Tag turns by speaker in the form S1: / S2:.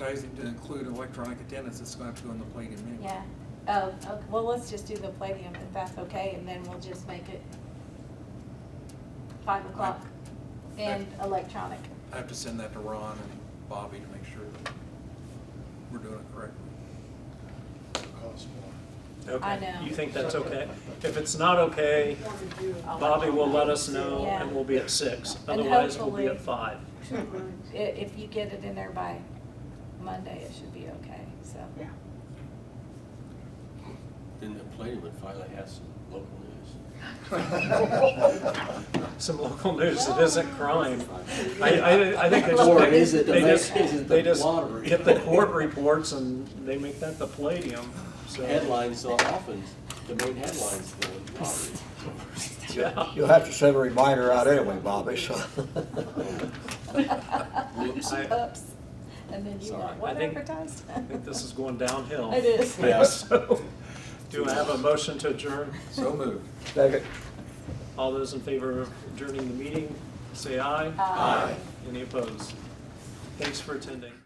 S1: advertising to include electronic attendance, it's gonna have to go in the plating menu.
S2: Yeah, oh, okay, well, let's just do the Palladium if that's okay, and then we'll just make it five o'clock and electronic.
S1: I have to send that to Ron and Bobby to make sure that we're doing it correctly.
S3: cost more.
S4: Okay.
S2: I know.
S4: You think that's okay? If it's not okay, Bobby will let us know and we'll be at six.
S2: Yeah. And
S4: Otherwise, we'll be at
S2: hopefully-
S4: five.
S2: I- If you get it in there by Monday, it should be okay, so.
S5: Yeah.
S6: Then the plane would finally have some local news.
S4: Some local news, it isn't crime. I, I, I think they just.
S6: Or
S4: pick-
S6: is it the
S4: they
S6: ma-
S4: just-
S6: is it the
S4: they just
S6: lottery?
S4: Get the court reports and they make that the palladium, so.
S6: Headlines so often, the main headlines, the lottery.
S4: Yeah.
S7: You'll have to send a reminder out anyway, Bobby, so.
S6: Whoops.
S4: I-
S2: Oops, and then you
S6: Sorry.
S2: want what
S4: I think-
S2: advertised?
S4: I think this is going downhill.
S2: It is.
S4: Yeah, so, do I have a motion to adjourn?
S1: So moved.
S7: Second.
S4: All those in favor of adjourning the meeting, say aye.
S2: Aye.
S4: Any opposed? Thanks for attending.